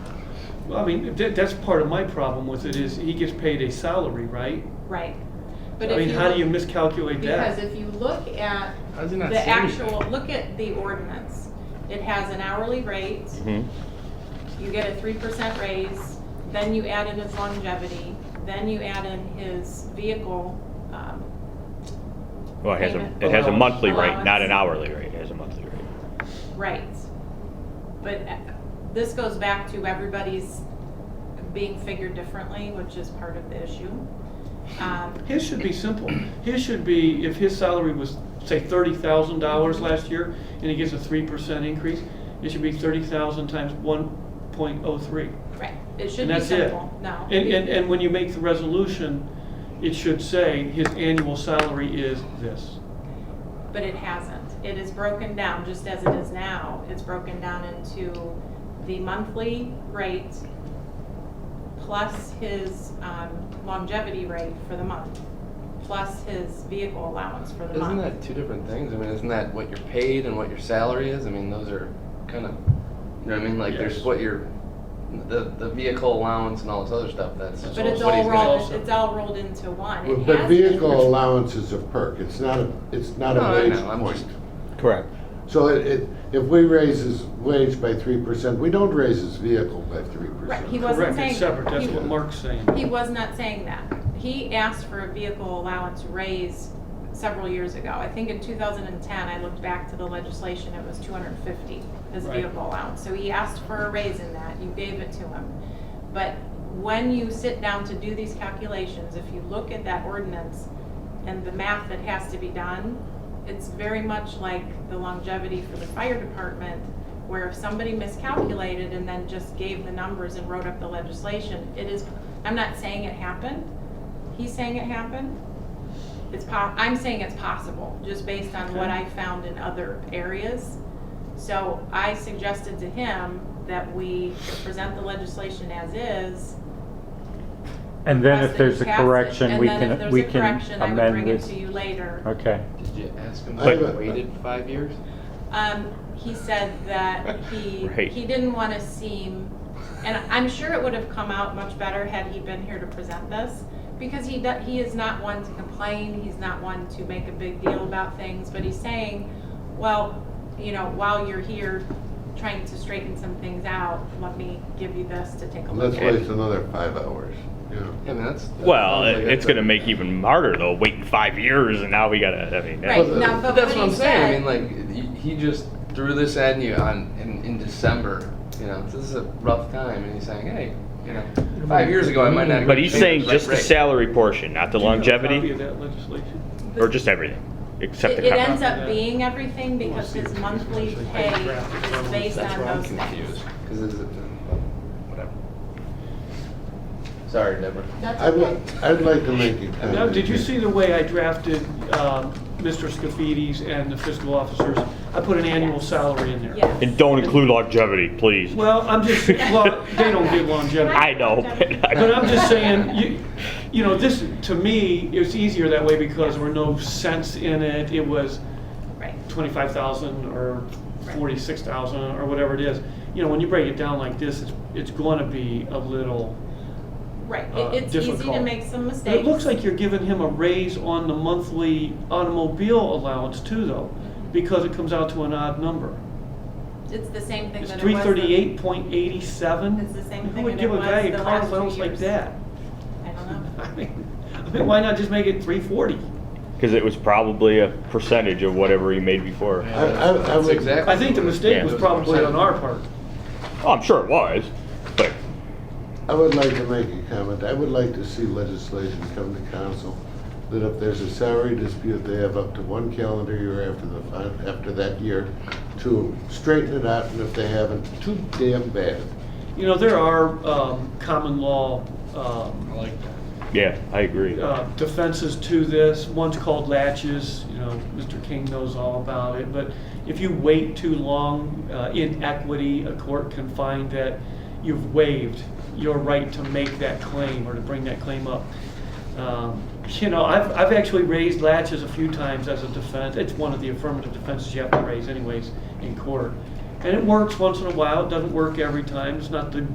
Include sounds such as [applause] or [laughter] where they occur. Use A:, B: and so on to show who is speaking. A: Well, I mean, that, that's part of my problem with it is he gets paid a salary, right?
B: right?
A: I
B: But if
A: mean, how do you miscalculate
B: Because
A: that?
B: if you look at
C: How does it not
B: the
C: say
B: actual, look at the ordinance. It has an hourly rate,
D: Mhm.
B: you get a three percent raise, then you add in his longevity, then you add in his vehicle, um,
D: Well, it has
B: Payment.
D: a, it has a monthly rate,
B: Allowance.
D: not an hourly rate, it has a monthly rate.
B: rights. But uh, this goes back to everybody's being figured differently, which is part of the issue. Um,
A: His should be simple. His should be, if his salary was, say, thirty thousand dollars last year, and he gets a three percent increase, it should be thirty thousand times one point oh three.
B: Right, it should
A: And
B: be
A: that's it.
B: simple, no.
A: And, and, and when you make the resolution, it should say his annual salary is this.
B: But it hasn't. It is broken down, just as it is now, it's broken down into the monthly rate plus his um, longevity rate for the month, plus his vehicle allowance for the
C: Isn't
B: month.
C: that two different things? I mean, isn't that what you're paid and what your salary is? I mean, those are kind of, you know what I mean? Like, there's
A: Yes.
C: what your, the, the vehicle allowance and all this other stuff, that's
B: But it's
C: what he's
B: all
C: gonna.
B: rolled, it's all rolled into one. It
E: But
B: has been.
E: vehicle allowance is a perk, it's not a, it's not
C: No,
E: a
C: I
E: wage
C: know, I'm
E: point.
C: just-
D: Correct.
E: So it, it, if we raise his wage by three percent, we don't raise his vehicle by three
B: Right, he
E: percent.
B: wasn't
A: Correct,
B: saying-
A: it's separate, that's
B: he-
A: what Mark's saying.
B: He was not saying that. He asked for a vehicle allowance raise several years ago. I think in 2010, I looked back to the legislation, it was 250, his
A: Right.
B: vehicle allowance. So he asked for a raise in that, you gave it to him. But when you sit down to do these calculations, if you look at that ordinance and the math that has to be done, it's very much like the longevity for the fire department, where if somebody miscalculated and then just gave the numbers and wrote up the legislation, it is, I'm not saying it happened, he's saying it happened. It's po, I'm saying it's possible, just based on what
A: Okay.
B: I found in other areas. So I suggested to him that we present the legislation as is.
F: And then
B: request
F: if
B: that
F: there's
B: you
F: a
B: pass it,
F: correction, we
B: And then
F: can,
B: if
F: we
B: there's a
F: can
B: correction, I would
F: amend
B: bring it
F: this.
B: to you later.
F: Okay.
C: Did you ask him
E: But-
C: if he waited five years?
B: Um, he said that he,
D: [laughs] Right.
B: he didn't wanna seem, and I'm sure it would have come out much better had he been here to present this, because he, do- he is not one to complain, he's not one to make a big deal about things, but he's saying, well, you know, while you're here trying to straighten some things out, let me give you this to take a look
E: Let's
B: at.
E: waste another five hours, you know?
C: Yeah, I mean, that's. that
D: Well,
C: sounds like
D: it- it's
C: that's
D: gonna
C: a-
D: make even harder though, waiting five years and now we gotta, I
B: Right,
D: mean, that-
E: Well,
B: now, but
C: That's
B: what
C: what I'm
B: he
C: saying.
B: said-
C: I mean, like, he he just threw this at you on in, in December. You know, this is a rough time, and he's saying, hey, you know, five years ago I might not. have
D: but he's
C: changed
D: saying
C: my
D: just the
C: rate."
D: salary portion, not the
A: Do you have a Copy
D: longevity,
A: of that legislation.
D: or just everything, except
B: It
D: the
B: it
D: contract.
B: ends up being everything because his monthly pay is based
C: That's
B: on
C: where I'm
B: those things.
C: confused. Because is it whatever? Sorry, Deborah.
B: That's
E: I'd, li- I'd like to make a comment.
A: Now, did you see the way I drafted um, Mr. Scafidi's and the fiscal officers? I put an annual
B: Yes.
A: salary in there.
B: Yes.
D: And don't include longevity, please.
A: Well, I'm
B: [laughs]
A: just, [laughs] well, they don't get longevity.
D: I know.
A: But I'm just saying, you, you know, this, to me, it was easier that way because there were no cents in it. It was
B: Right.
A: twenty-five thousand or forty-six thousand or whatever it is. You know, when you break it down like this, it's, it's gonna be a little,
B: Right,
A: uh,
B: It- it's easy to
A: difficult.
B: make some mistakes.
A: it looks like you're giving him a raise on the monthly automobile allowance too, though, because it comes out to an odd number.
B: It's the same thing
A: It's
B: that it was.
A: three thirty-eight point eighty-seven.
B: It's the same
A: Who
B: thing
A: would
B: that
A: give
B: it
A: a guy
B: was
A: a
B: the
A: car
B: last two
A: allowance like
B: years.
A: that? [laughs]
B: I don't know.
A: I mean, I mean, why not just make it three forty?
D: Because it was probably a percentage of whatever he made before.
E: I, I, I
C: That's
E: would.
C: exactly.
A: I think the mistake
D: Yeah.
A: was probably on our part.
D: Oh, I'm sure it was, but
E: I would like to make a comment. I would like to see legislation come to council that if there's a salary dispute, they have up to one calendar year after the, fin- after that year to straighten it out, and if they haven't, too damn bad.
A: You know, there are, um, common law, um,
C: Like,
D: yeah, I agree.
A: uh, defenses to this. One's called latches, you know, Mr. King knows all about it. But if you wait too long uh, in equity, a court can find that you've waived your right to make that claim or to bring that claim up. Um, You know, I've, I've actually raised latches a few times as a defense. It's one of the affirmative defenses you have to raise anyways in court. And it works once in a while, it doesn't work every time, it's not the